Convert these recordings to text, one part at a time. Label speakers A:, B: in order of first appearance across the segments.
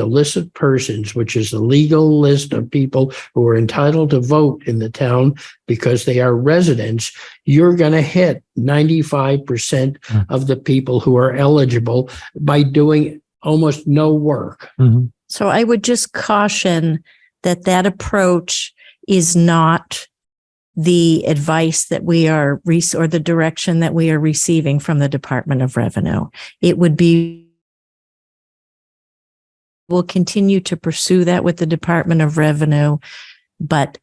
A: the list of persons, which is the legal list of people who are entitled to vote in the town because they are residents, you're going to hit 95%
B: Mm.
A: of the people who are eligible by doing almost no work.
B: Mhm.
C: So I would just caution that that approach is not the advice that we are, rec- or the direction that we are receiving from the Department of Revenue. It would be, we'll continue to pursue that with the Department of Revenue. But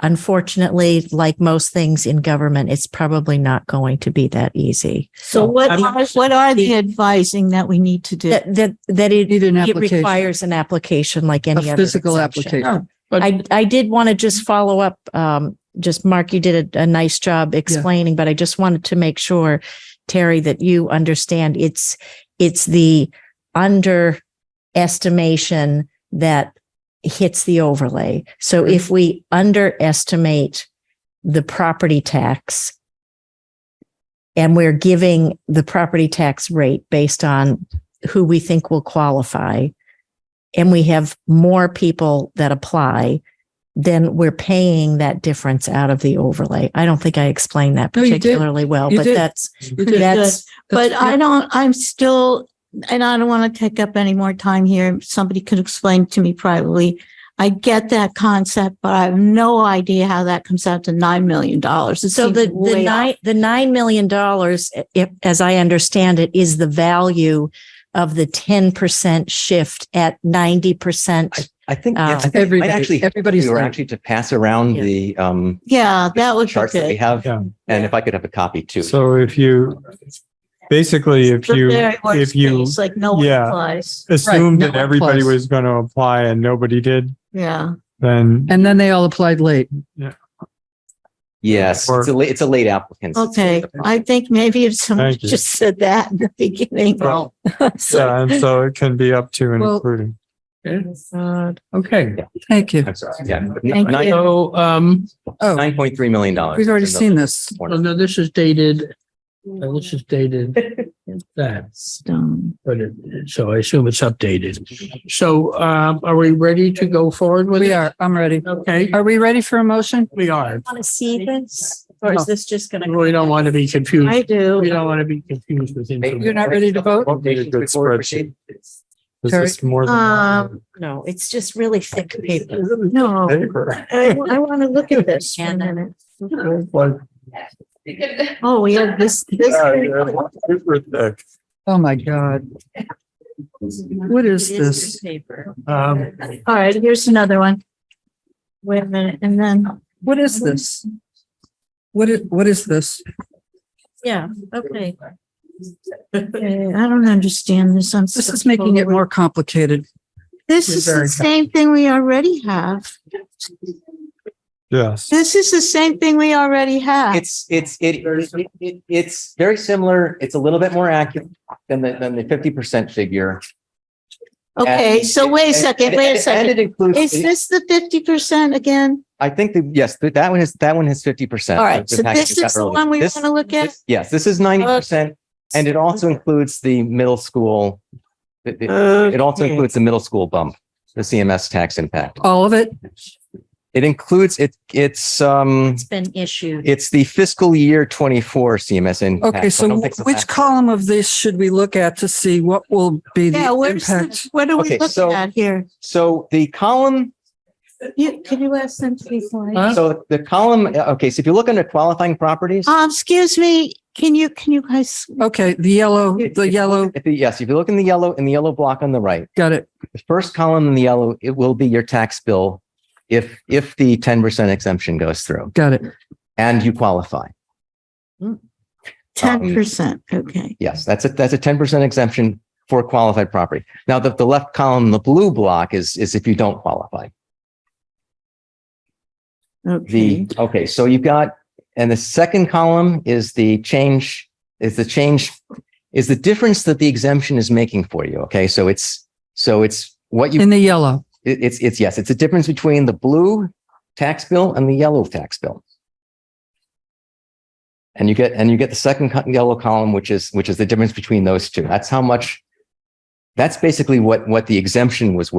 C: unfortunately, like most things in government, it's probably not going to be that easy.
D: So what,
B: I'm-
D: are- what are the advising that we need to do?
C: That, that, that it,
E: Need an
C: it
E: application,
C: requires an application like any
E: a
C: other.
E: physical
C: exemption.
E: application.
C: I, I did want to just follow up, um, just Mark, you did a, a nice job explaining, but I just wanted to make sure, Terry, that you understand it's, it's the underestimation that hits the overlay. So if we underestimate the property tax and we're giving the property tax rate based on who we think will qualify, and we have more people that apply, then we're paying that difference out of the overlay. I don't think I explained that
E: No, you did.
C: particularly well,
E: You
C: but
E: did.
C: that's,
E: You did.
C: that's,
D: But
E: That's-
D: I don't, I'm still, and I don't want to take up any more time here. Somebody could explain to me privately. I get that concept, but I have no idea how that comes out to $9 million. It
C: so the,
D: seems
C: the
D: way off.
C: nine, the nine million dollars, if, as I understand it, is the value of the 10% shift at 90%.
F: I think,
C: Oh.
F: I think it might
E: Um, Everybody,
F: actually,
E: everybody's.
F: we were
E: learning.
F: actually to pass around
C: Yeah.
F: the, um,
D: Yeah, that would be
F: charts that we
D: good.
F: have.
B: Yeah.
F: And if I could have a copy too.
B: So if you, basically, if
D: The
B: you,
D: very worst
B: if you
D: case, Like no one
B: yeah.
D: applies.
B: assumed
E: no
B: that
E: one
B: everybody
E: applies.
B: was going to apply and nobody did,
D: Yeah.
B: then
E: And then they all applied late.
F: Yes, it's a late, it's a late applicant.
D: Okay. I think maybe if someone
B: Thank you.
D: just said that in the beginning.
B: Well,
D: So-
B: yeah, and so it can be up to and
E: Well-
B: including.
A: Okay.
E: Thank you.
F: I'm sorry. Yeah.
D: Thank
F: Nine,
A: So, um,
E: Oh,
F: nine point three million dollars.
E: we've already seen this.
A: well, no, this is dated, uh, this is dated that,
D: Stone.
A: but it, so I assume it's updated. So, um, are we ready to go forward with it?
E: We are, I'm ready.
A: Okay,
E: Are we ready for a motion?
A: we are.
C: Want to see this? Or is this just going to?
A: We don't want to be
D: I
A: confused.
D: do.
A: We don't want to be confused with. information.
E: You're not ready to vote?
B: What would be a good spreadsheet? Is this more than?
D: Um,
C: No, it's just really thick paper.
D: No,
B: Paper.
D: I, I want to look at this for a minute.
B: Like,
D: Oh, we have this, this.
B: uh, yeah, paper thick.
E: Oh, my God. What is this?
C: Paper.
A: Um,
D: All right, here's another one. Wait a minute, and then,
E: What is this? What is, what is this?
C: Yeah, okay.
D: okay, I don't understand this. I'm.
E: This is making it more complicated.
D: This is the same thing we already have.
B: Yes.
D: This is the same thing we already have.
F: It's, it's, it, it- it, it's very similar. It's a little bit more accurate than the, than the fifty percent figure.
D: Okay, so wait a second, wait a
F: And
D: second.
F: it includes,
D: Is this the fifty percent again?
F: I think that, yes, that that one is, that one has fifty percent.
D: All right, so this is the one we want to look at?
F: This- Yes, this is ninety
E: Uh,
F: percent, and it also includes the middle school. It, it- it also
D: Okay.
F: includes the middle school bump, the CMS tax impact.
E: All of it?
F: It includes, it, it's, um,
C: It's been issued.
F: it's the fiscal year twenty-four CMS impact.
E: Okay,
F: I
E: so
F: don't think it's
E: which
F: actual.
E: column of this should we look at to see what will be
D: Yeah,
E: the
D: where's,
E: impact?
D: the- what are we
F: Okay, so-
D: looking at here?
F: So the column,
D: You, could you ask them to be quiet?
A: Huh?
F: so the column, uh, okay, so if you look under qualifying properties.
E: Uh.
D: Um, excuse me, can you, can you guys,
F: Um,
E: Okay, the yellow,
F: if- if
E: the
F: you
E: yellow,
F: look at the- Yes, if you look in the yellow, in the yellow block on the right,
E: got it.
F: the first column in the yellow, it will be your tax bill if, if the ten percent exemption goes through
E: Got it.
F: and you qualify.
D: ten percent, okay.
F: Yes, that's a, that's a ten percent exemption for qualified property. Now, the, the left column, the blue block is, is if you don't qualify.
D: Okay.
F: The, okay, so you've got, and the second column is the change, is the change, is the difference that the exemption is making for you. Okay, so it's, so it's what you,
E: In the yellow.
F: it- it's, it's, yes, it's a difference between the blue tax bill and the yellow tax bill. And you get, and you get the second co- yellow column, which is, which is the difference between those two. That's how much That's basically what, what the exemption was worth.